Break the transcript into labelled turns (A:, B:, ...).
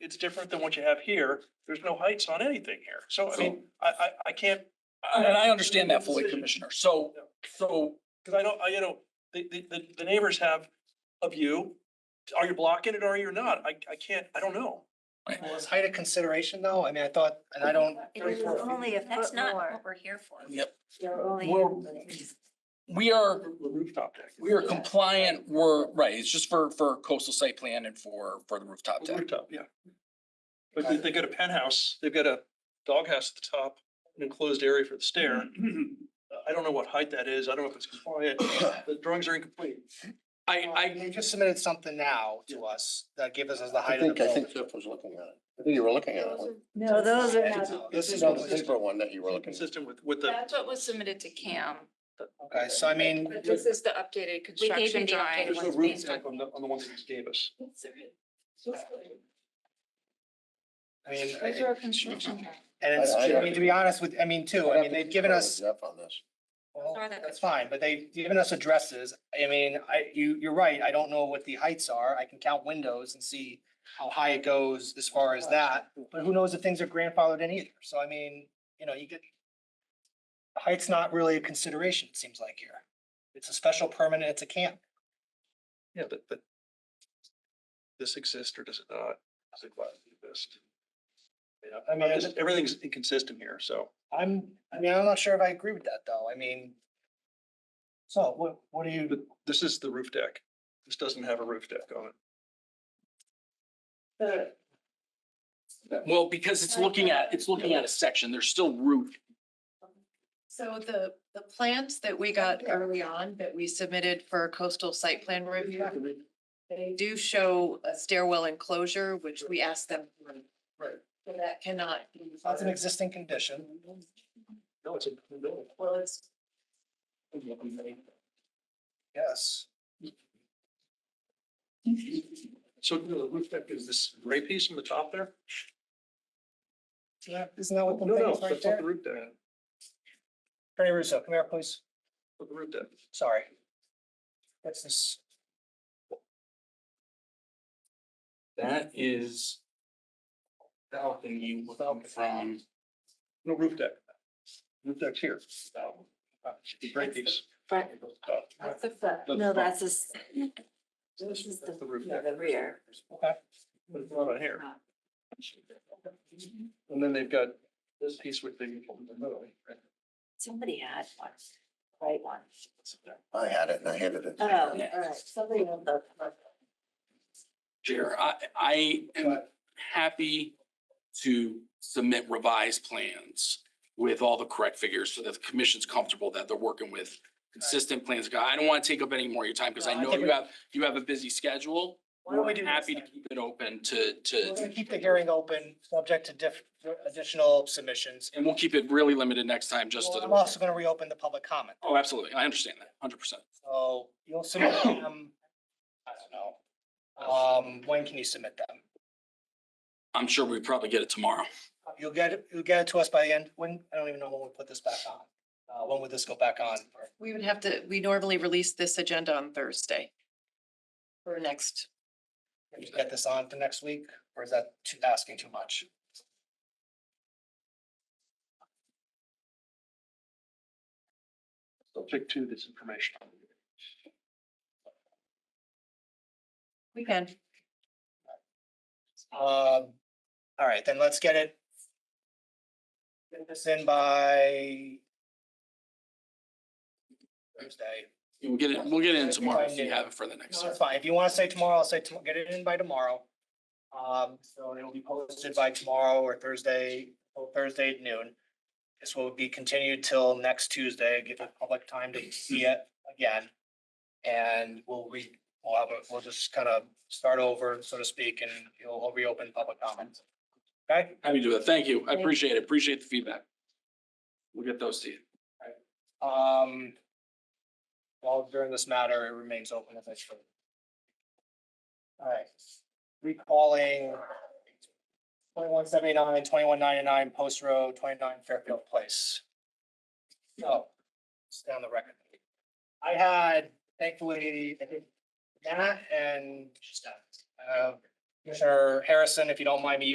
A: it's different than what you have here. There's no heights on anything here. So I mean, I, I, I can't,
B: And I understand that fully, Commissioner. So, so
A: because I don't, I, you know, the, the, the- the neighbors have a view. Are you blocking it or you're not? I, I can't, I don't know.
C: Well, is height a consideration though? I mean, I thought, and I don't,
D: It was only a
E: That's
D: foot
E: not
D: more.
E: what we're here for.
B: Yep.
D: You're only.
B: We're- we are,
A: The Rooftop deck.
B: we are compliant, we're, right, it's just for, for coastal site plan and for, for the rooftop deck.
A: Rooftop, yeah. But they, they got a penthouse, they've got a doghouse at the top, an enclosed area for the stair. I don't know what height that is. I don't know if it's compliant. The drawings are incomplete.
B: I, I,
C: they just submitted something now to us that gives us the
F: I
C: height of the
F: think, I think
C: building.
F: Jeff was looking at it. I think you were looking at it.
D: No, those are not.
F: This is
C: what
F: not
C: was-
F: the paper one that you were looking at.
A: Consistent with, with the,
G: That's what was submitted to CAM.
C: Okay, so I mean,
G: But this is the updated
E: you the
G: construction
E: updated
G: drawing.
A: there's no
E: ones
A: roof
E: based on-
A: deck on the, on the ones that you gave us.
C: I mean,
G: Those are our construction. drawings.
C: and it's, I mean, to be honest with, I mean, too, I mean, they've given us,
F: Jeff on this.
C: well,
E: Or that-
C: that's fine, but they've given us addresses. I mean, I, you, you're right. I don't know what the heights are. I can count windows and see how high it goes as far as that, but who knows if things are grandfathered in either. So I mean, you know, you get height's not really a consideration, it seems like here. It's a special permit, and it's a camp.
A: Yeah, but, but this exists or does it not? Does it quite exist? Yeah,
C: I mean,
A: this- everything's inconsistent here, so.
C: I'm, I mean, I'm not sure if I agree with that though. I mean. So what, what do
A: But
C: you,
A: this is the roof deck. This doesn't have a roof deck on it.
B: well, because it's looking at, it's looking at a section, there's still roof
G: So the, the plans that we got early on that we submitted for coastal site plan review, they do show a stairwell enclosure, which we asked them. for.
A: Right.
G: So That cannot. be-
C: that's an existing condition.
A: No, it's a building.
G: Well, it's
C: Yes.
A: So you know, the roof deck is this gray piece on the top there?
C: Yeah, Isn't that what Oh, the
A: No,
C: thing
A: no,
C: is right
A: that's not
C: there?
A: the roof deck.
C: Attorney Russo, come here, please.
A: Not the roof deck.
C: Sorry. What's this?
B: That is balcony looking from,
A: No roof deck. Roof deck's here. The gray piece.
D: Front,
A: That's
D: that's the front. No, that's this. This is the,
A: the roof
D: yeah,
A: deck.
D: the rear.
C: Okay,
A: But it's not on here. And then they've got this piece with the.
D: Somebody had one, right one.
F: I had it and I hated it.
D: Oh, all right, somebody on the.
B: Chair, I, I am happy to submit revised plans with all the correct figures so that the commission's comfortable that they're working with consistent plans. I don't want to take up any more of your time because I
C: No, I
B: know
C: think
B: you
C: we-
B: have, you have a busy schedule.
C: Why don't we do this
B: Happy to
C: then?
B: keep it open to, to,
C: we're gonna keep the hearing open, subject to diff, additional submissions.
B: and we'll keep it really limited next time, just to
C: Well, I'm
B: the.
C: also gonna reopen the public comment,
B: Oh, absolutely. I understand that, hundred percent.
C: so you'll submit them, I don't know. Um, when can you submit them?
B: I'm sure we probably get it tomorrow.
C: You'll get, it- you'll get it to us by the end, when, I don't even know when we put this back on. Uh, when would this go back on? for-
G: We would have to, we normally release this agenda on Thursday. For next,
C: Can you Get this on for next week, or is that too, asking too much?
A: Subject to this information.
G: we can.
C: Um, all right, then let's get it. Get this in by. Thursday.
B: We'll get it, we'll get it in tomorrow if
C: Fine,
B: you
C: yeah.
B: have it for the next.
C: No, that's fine. If you want to say tomorrow, I'll say, tom- get it in by tomorrow. Um, so it'll be posted by tomorrow or Thursday, or Thursday at noon. This will be continued till next Tuesday, give the public time to see it again. And we'll re, we'll have, a- we'll just kind of start over, so to speak, and you'll reopen public comments. Okay?
B: Happy to do that. Thank you. I
D: Thank you.
B: appreciate it. Appreciate the feedback. We'll get those to you.
C: Um. While during this matter, it remains open if it's true. Alright, recalling. 2179, 2199 Post Road, twenty-nine Fairfield Place. So, it's down the record. I had thankfully, I think, Matt and uh, Commissioner Harrison, if you don't mind me